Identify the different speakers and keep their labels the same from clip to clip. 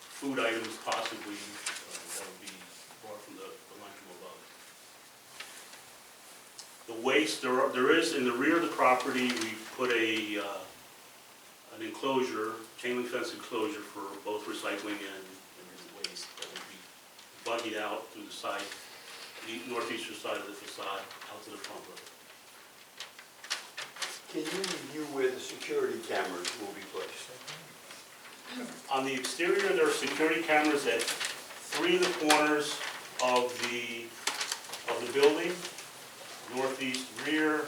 Speaker 1: food items possibly, uh, that would be brought from the the lunchroom above. The waste, there are, there is, in the rear of the property, we put a, uh, an enclosure, chain link fence enclosure for both recycling and and waste that would be buggied out through the side, the northeastern side of the facade, out to the front road.
Speaker 2: Can you review where the security cameras will be placed?
Speaker 1: On the exterior, there are security cameras at three of the corners of the, of the building, northeast rear,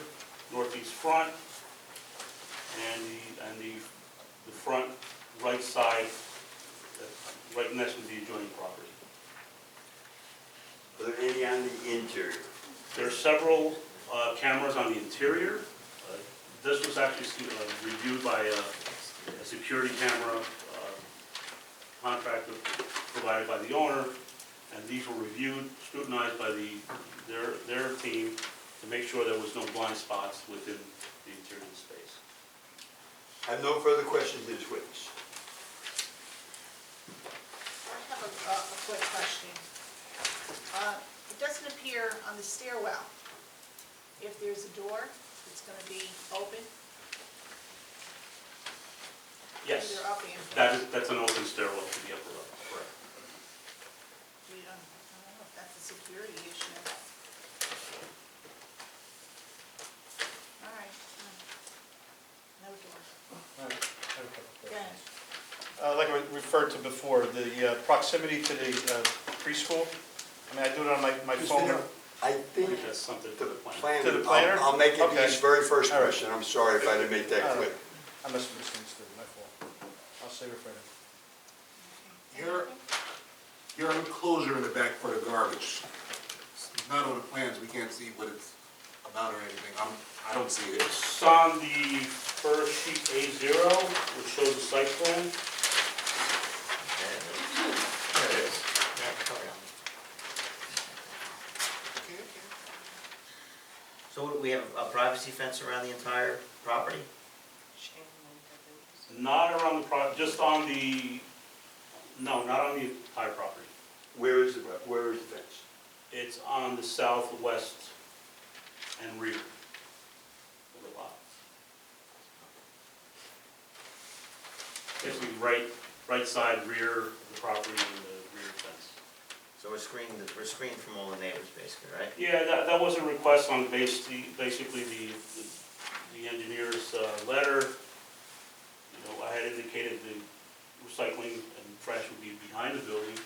Speaker 1: northeast front, and the, and the, the front right side, uh, right next to the adjoining property.
Speaker 2: Are there any on the interior?
Speaker 1: There are several uh, cameras on the interior. Uh, This was actually uh, reviewed by a, a security camera uh, contractor provided by the owner, and these were reviewed, scrutinized by the, their, their team to make sure there was no blind spots within the interior space.
Speaker 2: I have no further questions to this witness.
Speaker 3: I have a, a a quick question. Uh, It doesn't appear on the stairwell, if there's a door, it's gonna be open?
Speaker 1: Yes,
Speaker 3: Either up and.
Speaker 1: that is, that's an open stairwell to the upper level. Correct.
Speaker 3: We don't- I don't know if that's a security issue. All right. um, No door. Go ahead.
Speaker 4: Uh, Like I referred to before, the uh, proximity to the uh, preschool, I mean, I do it on my my phone.
Speaker 2: Christina, I
Speaker 1: I
Speaker 2: think
Speaker 1: think that's something for
Speaker 2: the
Speaker 1: the plan.
Speaker 2: planner.
Speaker 4: To the planner?
Speaker 2: I'll I'll make it
Speaker 4: Okay.
Speaker 2: his very first
Speaker 4: All right.
Speaker 2: question. I'm sorry if I didn't make
Speaker 4: All
Speaker 2: that
Speaker 4: right.
Speaker 2: quick.
Speaker 4: I must have misunderstood, my fault. I'll save it for now.
Speaker 5: Your, your enclosure in the back for the garbage, it's not on the plans, we can't see what it's about or anything, I'm, I don't see it.
Speaker 1: It's on the first sheet A0, which shows the site plan.
Speaker 5: There it is. Okay, okay.
Speaker 6: So what, we have a privacy fence around the entire property?
Speaker 1: Not around the pro, just on the, no, not on the entire property.
Speaker 2: Where is the, where is the fence?
Speaker 1: It's on the southwest and rear of the lot. Basically, right, right side, rear of the property and the rear fence.
Speaker 6: So we're screened, we're screened from all the neighbors basically, right?
Speaker 1: Yeah, that, that was a request on basically, basically the, the engineer's, uh, letter. You know, I had indicated the recycling and trash would be behind the building,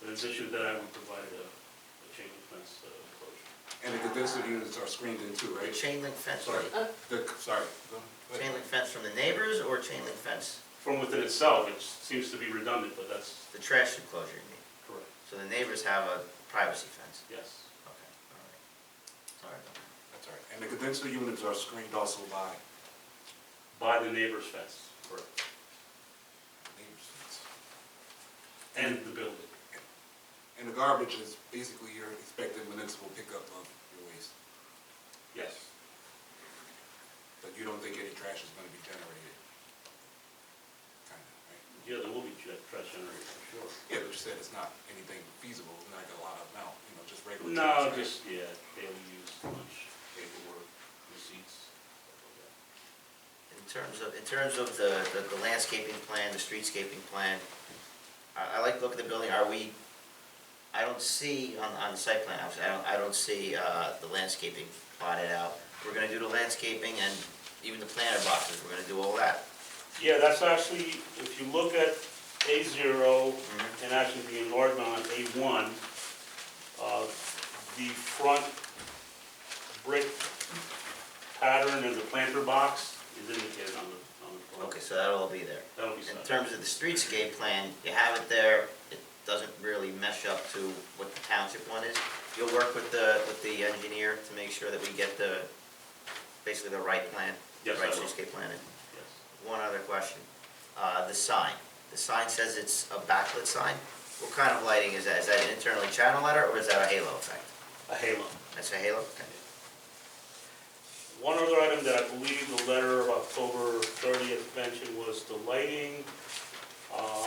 Speaker 1: but it's issued that I would provide a, a chain link fence uh, enclosure.
Speaker 5: And the condensed units are screened in too,
Speaker 6: The
Speaker 5: right?
Speaker 6: chain link fence,
Speaker 5: Sorry,
Speaker 6: right?
Speaker 5: the, sorry. Go ahead.
Speaker 6: chain link fence from the neighbors or chain link fence,
Speaker 1: From within itself, it seems to be redundant, but that's
Speaker 6: the trash enclosure you mean?
Speaker 1: correct,
Speaker 6: So the neighbors have a privacy fence?
Speaker 1: yes.
Speaker 6: Okay, all right. Sorry about that.
Speaker 5: That's all right. And the condensed units are screened also by
Speaker 1: By the neighbor's fence, correct,
Speaker 5: neighbors.
Speaker 1: and the building.
Speaker 5: And the garbage is basically your expected municipal pickup of your waste,
Speaker 1: Yes,
Speaker 5: but you don't think any trash is gonna be generated? Kinda, right?
Speaker 1: yeah, there will be tra- trash generated, for sure.
Speaker 5: Yeah, but you said it's not anything feasible, not like a lot of amount, you know, just regular.
Speaker 1: No,
Speaker 5: trash,
Speaker 1: just, yeah, daily use, lunch, paperwork, receipts.
Speaker 6: In terms of, in terms of the, the- the landscaping plan, the streetscaping plan, I, I like to look at the building, are we, I don't see on, on the site plan, obviously, I don't, I don't see, uh, the landscaping plotted out. We're gonna do the landscaping and even the planter boxes, we're gonna do all that.
Speaker 1: Yeah, that's actually, if you look at A zero and actually the enlargement on A one, uh, the front brick pattern and the planter box is indicated on the, on the front.
Speaker 6: Okay, so that'll all be there.
Speaker 1: That'll be
Speaker 6: In
Speaker 1: set.
Speaker 6: terms of the streetscape plan, you have it there, it doesn't really mesh up to what the township one is. You'll work with the, with the engineer to make sure that we get the, basically the right plan, the
Speaker 1: Yes, I
Speaker 6: right
Speaker 1: will.
Speaker 6: streetscape plan in.
Speaker 1: Yes.
Speaker 6: One other question, uh, the sign, the sign says it's a backlit sign, what kind of lighting is that, is that an internally channel lighter, or is that a halo effect?
Speaker 1: A halo.
Speaker 6: That's a halo, okay,
Speaker 1: One other item that I believe the letter of October thirtieth mentioned was the lighting. Uh,